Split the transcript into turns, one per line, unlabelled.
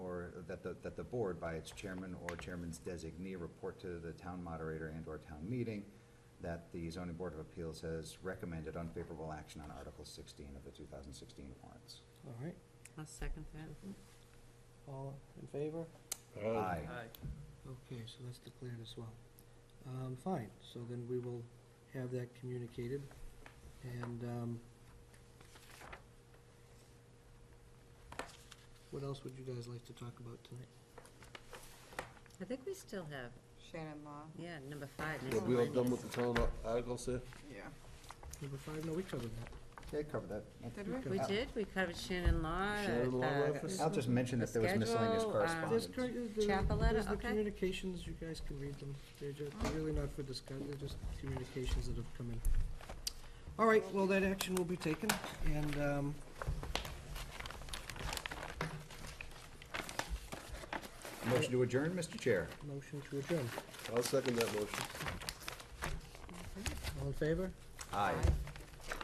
that the, that the board by its chairman or chairman's designee report to the town moderator and or town meeting that the zoning board of appeals has recommended unfavorable action on Article sixteen of the two thousand sixteen warrants.
All right,
I'll second that.
all in favor?
Aye.
Okay, so that's declared as well. Um, fine, so then we will have that communicated, and, um, what else would you guys like to talk about tonight?
I think we still have,
Shannon Law.
yeah, number five.
Yeah,
next
we
we all
one
done
is-
with the town articles there?
Yeah.
Number five, no, we covered that.
They covered that.
Did we?
We
Uh,
did, we covered Shannon Law.
Shannon Law
uh,
reference?
I'll just mention that there was miscellaneous
Schedule, um,
correspondence.
There's, cur- there's the-
Chapeletta,
there's the
okay.
communications, you guys can read them. They're just, they're really not for discuss, they're just communications that have come in. All right, well, that action will be taken, and, um,
Motion to adjourn, Mr. Chair.
motion to adjourn.
I'll second that motion.
All in favor?
Aye.
Aye.